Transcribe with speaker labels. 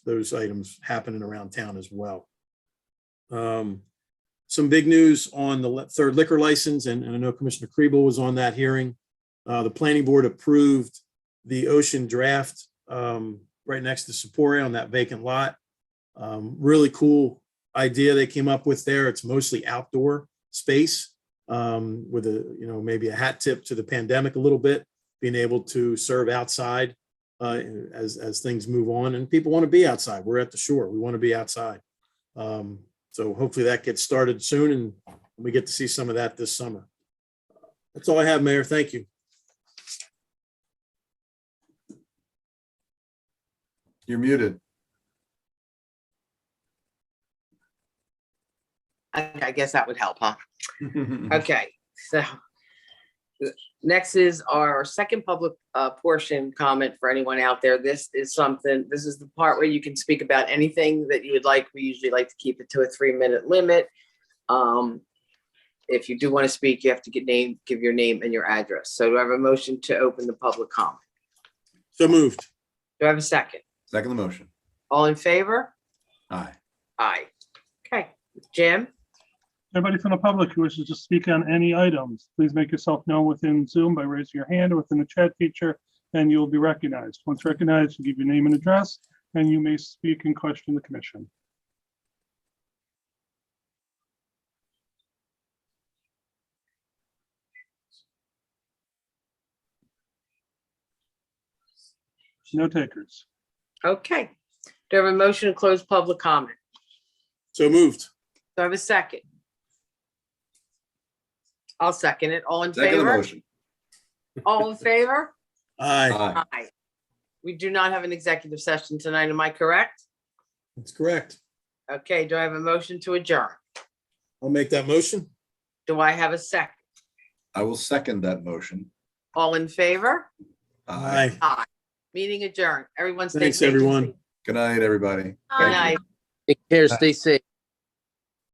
Speaker 1: those items happening around town as well. Um, Some big news on the le- third liquor license, and and I know Commissioner Kriebel was on that hearing. Uh, The planning board approved the ocean draft um, right next to Sapore on that vacant lot. Um, Really cool idea they came up with there. It's mostly outdoor space um, with a, you know, maybe a hat tip to the pandemic a little bit, being able to serve outside uh, as, as things move on and people want to be outside. We're at the shore. We want to be outside. Um, so hopefully that gets started soon and we get to see some of that this summer. That's all I have, Mayor. Thank you.
Speaker 2: You're muted.
Speaker 3: I, I guess that would help, huh?
Speaker 2: Mm-hmm.
Speaker 3: Okay, so. Next is our second public uh, portion comment for anyone out there. This is something, this is the part where you can speak about anything that you would like. We usually like to keep it to a three-minute limit. Um, If you do want to speak, you have to get name, give your name and your address. So do I have a motion to open the public comment?
Speaker 1: So moved.
Speaker 3: Do I have a second?
Speaker 2: Second the motion.
Speaker 3: All in favor?
Speaker 2: Aye.
Speaker 3: Aye. Okay, Jim?
Speaker 4: Anybody from the public who wishes to speak on any items, please make yourself known within Zoom by raising your hand or within the chat feature, and you'll be recognized. Once recognized, you give your name and address, and you may speak and question the commission. No takers.
Speaker 3: Okay. Do I have a motion to close public comment?
Speaker 1: So moved.
Speaker 3: Do I have a second? I'll second it. All in
Speaker 2: Second the
Speaker 3: favor?
Speaker 2: motion.
Speaker 3: All in favor?
Speaker 1: Aye.
Speaker 2: Aye.
Speaker 3: Aye. We do not have an executive session tonight, am I correct?
Speaker 1: That's correct.
Speaker 3: Okay, do I have a motion to adjourn?
Speaker 1: I'll make that motion.
Speaker 3: Do I have a second?
Speaker 2: I will second that motion.
Speaker 3: All in favor?
Speaker 1: Aye.
Speaker 3: Meeting adjourned. Everyone stay
Speaker 1: Thanks,
Speaker 3: safe and
Speaker 1: everyone.
Speaker 3: safe.
Speaker 2: Good night, everybody.
Speaker 3: Good
Speaker 2: Thank you.
Speaker 3: night.
Speaker 5: Take care, stay safe.